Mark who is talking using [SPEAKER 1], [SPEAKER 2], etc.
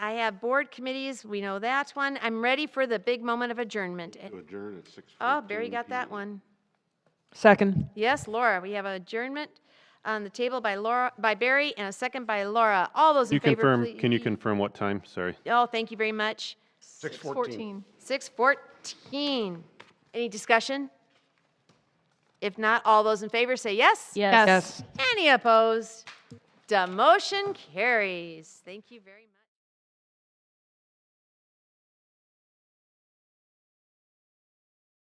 [SPEAKER 1] have board committees, we know that one. I'm ready for the big moment of adjournment.
[SPEAKER 2] to adjourn at six.
[SPEAKER 1] Oh, Barry got that one.
[SPEAKER 3] Second.
[SPEAKER 1] Yes, Laura, we have adjournment on the table by Laura, by Barry, and a second by Laura. All those in
[SPEAKER 4] You
[SPEAKER 1] favor,
[SPEAKER 4] confirm,
[SPEAKER 1] please.
[SPEAKER 4] can you confirm what time? Sorry.
[SPEAKER 1] Oh, thank you very much.
[SPEAKER 2] 6:14.
[SPEAKER 1] 6:14. Any discussion? If not, all those in favor say yes.
[SPEAKER 3] Yes.
[SPEAKER 1] Any opposed? Demotion carries. Thank you very much.